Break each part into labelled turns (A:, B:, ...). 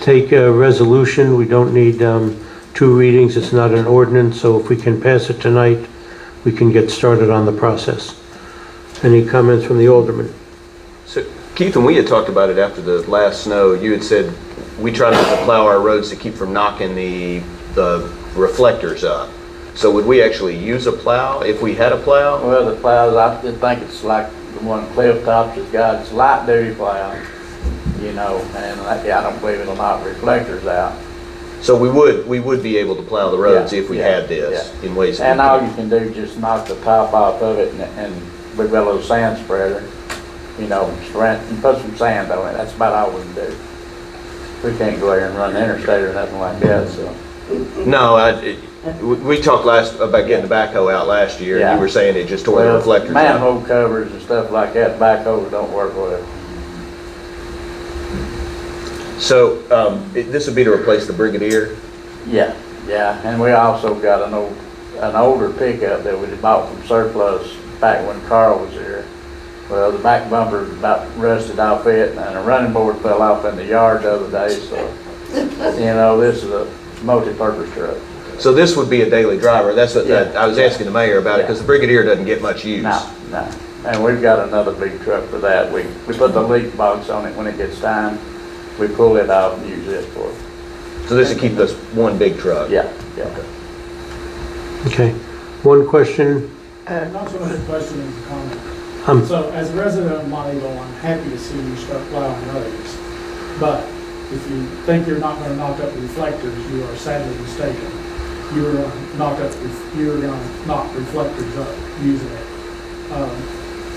A: take a resolution, we don't need um, two readings, it's not an ordinance, so if we can pass it tonight, we can get started on the process. Any comments from the alderman?
B: So Keith and we had talked about it after the last snow. You had said we try not to plow our roads to keep from knocking the, the reflectors up. So would we actually use a plow if we had a plow?
C: Well, the plows, I just think it's like the one Cliff Tops has got, it's light duty plow, you know, and I yeah, I don't believe it'll knock reflectors out.
B: So we would, we would be able to plow the roads
C: Yeah,
B: if we
C: yeah,
B: had this in ways. that we
C: And all
B: can-
C: you can do is just knock the top off of it and, and with a little sand spreader, you know, and spread- and put some sand on it, that's about all we can do. We can't go there and run the interstate or nothing like that, so.
B: No, I, it- we- we talked last, about getting the backhoe out last year. and
C: Yeah.
B: You were saying it just tore the
C: Well,
B: reflectors out.
C: Manhole covers and stuff like that, backhoes don't work with it.
B: So, um, it- this would be to replace the Brigadier?
C: Yeah, yeah, and we also got an old, an older pickup that we bought from surplus back when Carl was here. Well, the back bumper about rusted off it, and a running board fell off in the yard the other day, so, you know, this is a multi-purpose truck.
B: So this would be a daily driver. That's what,
C: Yeah.
B: I was asking the mayor about it because the Brigadier doesn't get much use.
C: No, no, and we've got another big truck for that, we, we put the leak box on it when it gets time, we pull it out and use it for,
B: So this would keep us one big truck?
C: yeah, yeah.
A: Okay, one question,
D: Not so much a question as a comment.
A: um,
D: So as a resident of Montego, I'm happy to see you start plowing roads. But if you think you're not gonna knock up reflectors, you are sadly mistaken. You're gonna knock up, ref- you're gonna knock reflectors up using it. Um,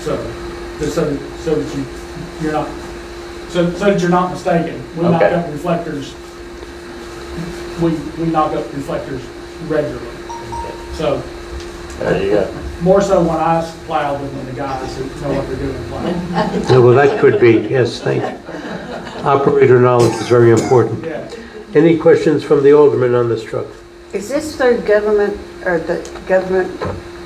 D: So, just so, so that you, you're not, so, so that you're not mistaken. We knock
C: Okay.
D: up reflectors, we, we knock up reflectors regularly. So,
C: There you go.
D: more so when I plow than when the guys who know what they're doing plow.
A: well, that could be, yes, thank you. Operator knowledge is very important.
D: Yeah.
A: Any questions from the alderman on this truck?
E: Is this through government, or the government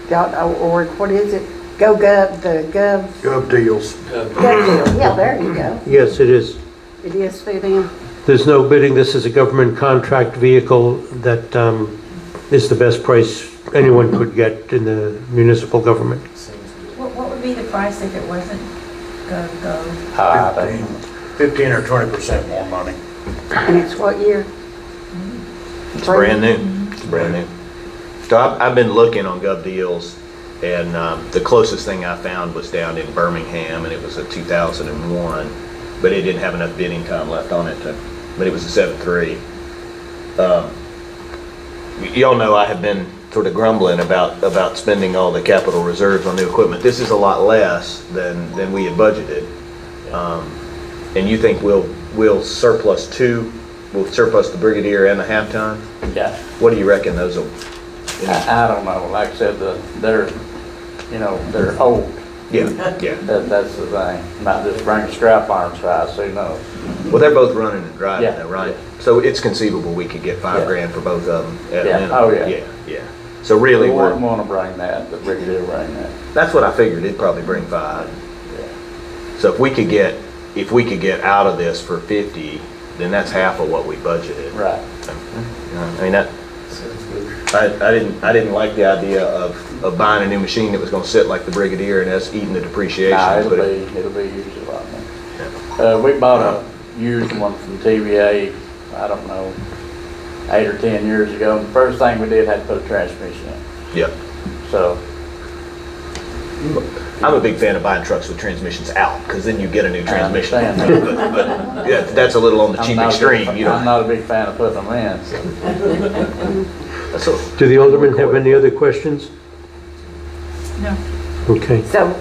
E: dot org, what is it? Go gov, the gov,
F: Gov deals.
E: gov deal, yeah, there you go.
A: Yes, it is.
E: It is through them.
A: There's no bidding, this is a government contract vehicle that um, is the best price anyone could get in the municipal government.
G: What, what would be the price if it wasn't go, go?
C: Ah, I think-
F: Fifteen or twenty percent more money.
E: And it's what year?
B: It's brand new. It's brand new. So I've, I've been looking on Gov Deals, and um, the closest thing I found was down in Birmingham, and it was a 2001, but it didn't have enough bidding time left on it to, but it was a 7.3. Um, y- Y'all know I have been sort of grumbling about, about spending all the capital reserves on new equipment. This is a lot less than, than we had budgeted. Um, And you think we'll, we'll surplus two, we'll surplus the Brigadier and the half-ton?
C: Yeah.
B: What do you reckon those will?
C: I, I don't know, like I said, the, they're, you know, they're old,
B: Yeah, yeah.
C: that, that's the thing, not just bring scrap iron size, who knows?
B: Well, they're both running and driving
C: Yeah,
B: though, right? So it's conceivable we could get five
C: Yeah.
B: grand for both of them at a
C: Yeah,
B: minimum.
C: oh, yeah.
B: Yeah, yeah. So really,
C: We wouldn't
B: we're,
C: wanna bring that, but Ricky did bring that,
B: that's what I figured, it'd probably bring five. So if we could get, if we could get out of this for fifty, then that's half of what we budgeted.
C: right.
B: You know, I mean, that, I, I didn't, I didn't like the idea of, of buying a new machine that was gonna sit like the Brigadier and us eating the depreciation.
C: Nah, it'll
B: but it-
C: be, it'll be used a lot more. Uh, we bought a used one from TVA, I don't know, eight or ten years ago, and the first thing we did had to put a transmission in,
B: Yeah.
C: so,
B: I'm a big fan of buying trucks with transmissions out, because then you get a new transmission.
C: understand.
B: But- but, yeah, That's a little on the
C: I'm
B: cheap
C: not a big-
B: extreme, you
C: I'm
B: know.
C: not a big fan of putting them in, so.
B: That's a-
A: Do the aldermen have any other questions?
G: No.
A: Okay,
E: So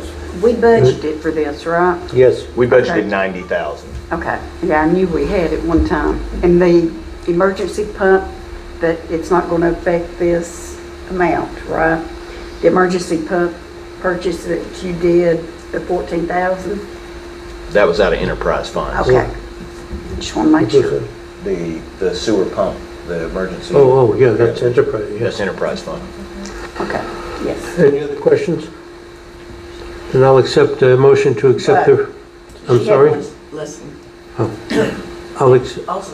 E: we budgeted for this, right?
A: yes,
B: We
E: Okay.
B: budgeted 90,000.
E: Okay, yeah, I knew we had it one time. And the emergency pump, that it's not going to affect this amount, right? The emergency pump purchase that you did, the 14,000?
B: That was out of enterprise funds.
E: Okay. Just want to make sure.
B: The, the sewer pump, the emergency.
A: Oh, oh, yeah, that's enterprise, yes.
B: That's enterprise fund.
E: Okay, yes.
A: Any other questions? And I'll accept a motion to accept the, I'm
H: She had
A: sorry?
H: one- Listen,
A: I'll, ex-
H: also